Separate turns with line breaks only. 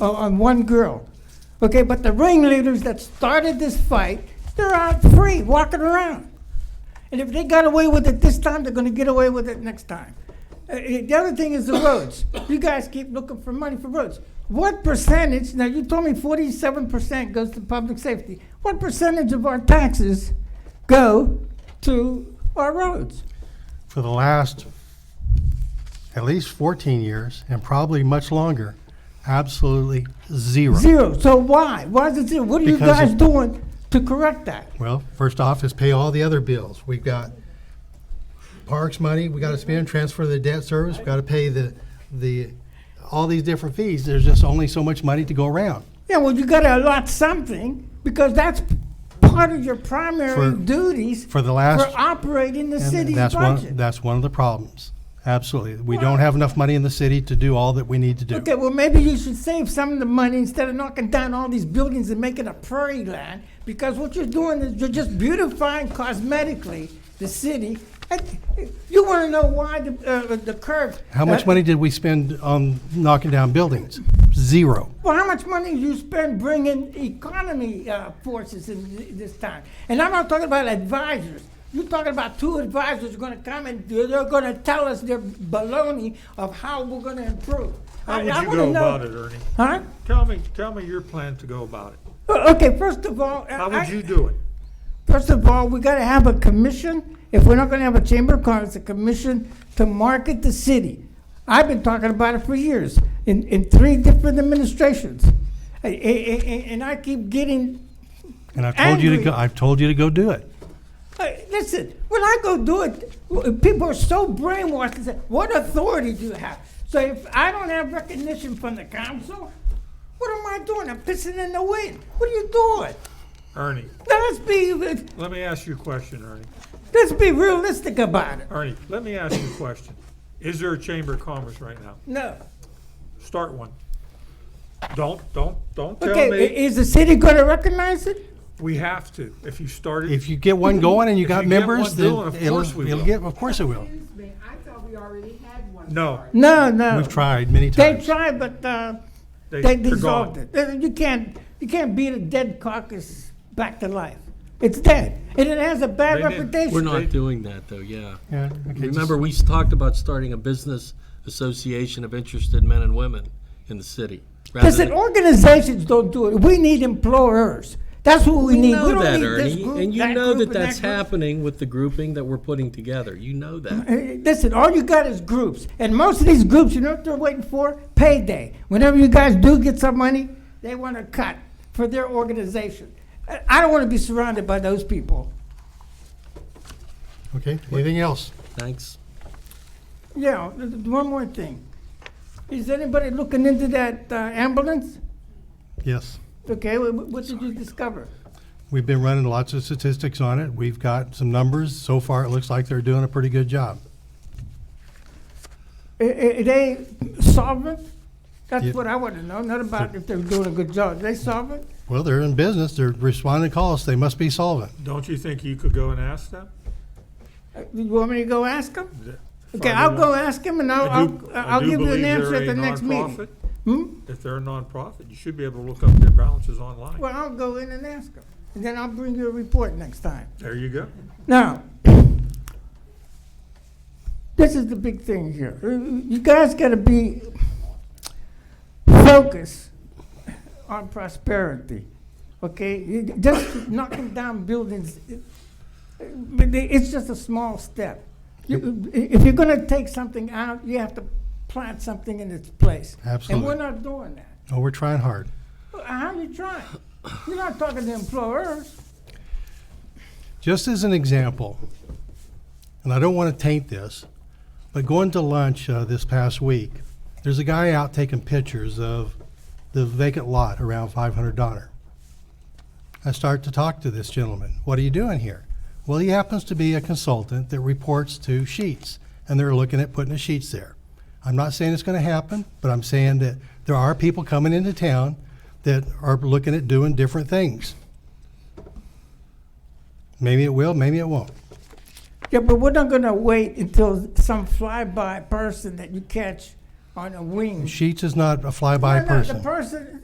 on- uh, on one girl. Okay, but the ringleaders that started this fight, they're out free, walking around. And if they got away with it this time, they're gonna get away with it next time. Uh, uh, The other thing is the roads. You guys keep looking for money for roads. What percentage, now you told me forty-seven percent goes to public safety. What percentage of our taxes go to our roads?
for the last at least 14 years and probably much longer, absolutely zero.
Zero. So why? Why is it zero? What are you
Because
guys
of-
doing to correct that?
Well, first off is pay all the other bills. We've got parks money, we gotta spend, transfer the debt service, we gotta pay the, the, all these different fees. There's just only so much money to go around.
Yeah, well, you got to allot something because that's part of your primary
For-
duties
for the last-
for operating the
And
city's
that's one-
budget.
That's one of the problems. Absolutely. We don't have enough money in the city to do all that we need to do.
Okay, well, maybe you should save some of the money instead of knocking down all these buildings and making a prairie land. Because what you're doing is you're just beautifying cosmetically the city. And you want to know why the, uh, the curve?
How much
uh,
money did we spend on knocking down buildings? Zero.
Well, how much money you spend bringing economy uh, forces in th- this time? And I'm not talking about advisors. You're talking about two advisors going to come and they're, they're going to tell us their baloney of how we're going to improve.
How would
I, I
you
wanna
go
know,
about it, Ernie?
Huh?
Tell me, tell me your plan to go about it.
Well, okay, first of all, uh,
How
I,
would you do it?
First of all, we gotta have a commission. If we're not gonna have a chamber of commerce, a commission to market the city. I've been talking about it for years, in, in three different administrations. A- a- a- a- And I keep getting,
And I've told you to go,
Angry.
I've told you to go do it.
uh, listen, when I go do it, w- people are so brainwashed, they say, what authority do you have? So if I don't have recognition from the council, what am I doing? I'm pissing in the wind. What are you doing?
Ernie,
Now, let's be,
let me ask you a question, Ernie.
let's be realistic about it.
Ernie, let me ask you a question. Is there a Chamber of Commerce right now?
No.
Start one. Don't, don't, don't tell
Okay, i-
me.
is the city gonna recognize it?
We have to. If you start it,
If you get one going and you got
you get
members,
one
then
doing, of
it'll,
course we
it'll
will.
get, of course it will.
Excuse me, I thought we already had one.
no,
No, no.
We've tried many
They
times.
tried, but uh,
they,
they
they're gone.
dissolved it. Uh, You can't, you can't beat a dead carcass back to life. It's dead, and it has a bad
They didn't-
We're
reputation.
They-
not doing that, though, yeah.
Yeah, okay, just-
Remember, we s- talked about starting a business association of interested men and women in the city. rather
Listen,
than-
organizations don't do it. We need employers. That's what we need.
You
We
know
don't
that,
need this
Ernie,
group,
and you
that
know
group,
that
and
that's
group.
happening with the grouping that we're putting together. You know that.
Uh, Listen, all you got is groups, and most of these groups, you know what they're waiting for? Payday. Whenever you guys do get some money, they want to cut for their organization. I- I don't want to be surrounded by those people.
Okay, anything else?
Thanks.
Yeah, th- th- one more thing. Is anybody looking into that uh, ambulance?
Yes.
Okay, wh- wh- what did you discover?
We've been running lots of statistics on it. We've got some numbers. So far, it looks like they're doing a pretty good job.
I- i- Are they solvent?
Yeah.
That's what I want to know, not about if they're doing a good job. Are they solvent?
Well, they're in business. They're responding to calls. They must be solvent.
Don't you think you could go and ask them?
Uh, You want me to go ask them?
Th-
Okay,
find
I'll
out.
go ask him, and I'll,
I do-
I'll,
I
I'll
do
give you
believe
an
they're
answer at
a
the next meeting.
nonprofit.
Hmm?
If they're a nonprofit, you should be able to look up their balances online.
Well, I'll go in and ask him, and then I'll bring you a report next time.
There you go.
Now, this is the big thing here. Uh, You guys got to be focused on prosperity, okay? You- Just knocking down buildings, it- but they- it's just a small step. You- If you're going to take something out, you have to plant something in its place. And
Absolutely.
we're not doing that.
Oh, we're trying hard.
How you trying? You're not talking to employers.
Just as an example, and I don't want to taint this, but going to lunch uh, this past week, there's a guy out taking pictures of the vacant lot around 500 Donner. I start to talk to this gentleman. What are you doing here? Well, he happens to be a consultant that reports to Sheets, and they're looking at putting the Sheets there. I'm not saying it's going to happen, but I'm saying that there are people coming into town that are looking at doing different things. Maybe it will, maybe it won't.
Yeah, but we're not gonna wait until some flyby person that you catch on a wing.
Sheets is not a
No,
fly-by
no,
person.
The person,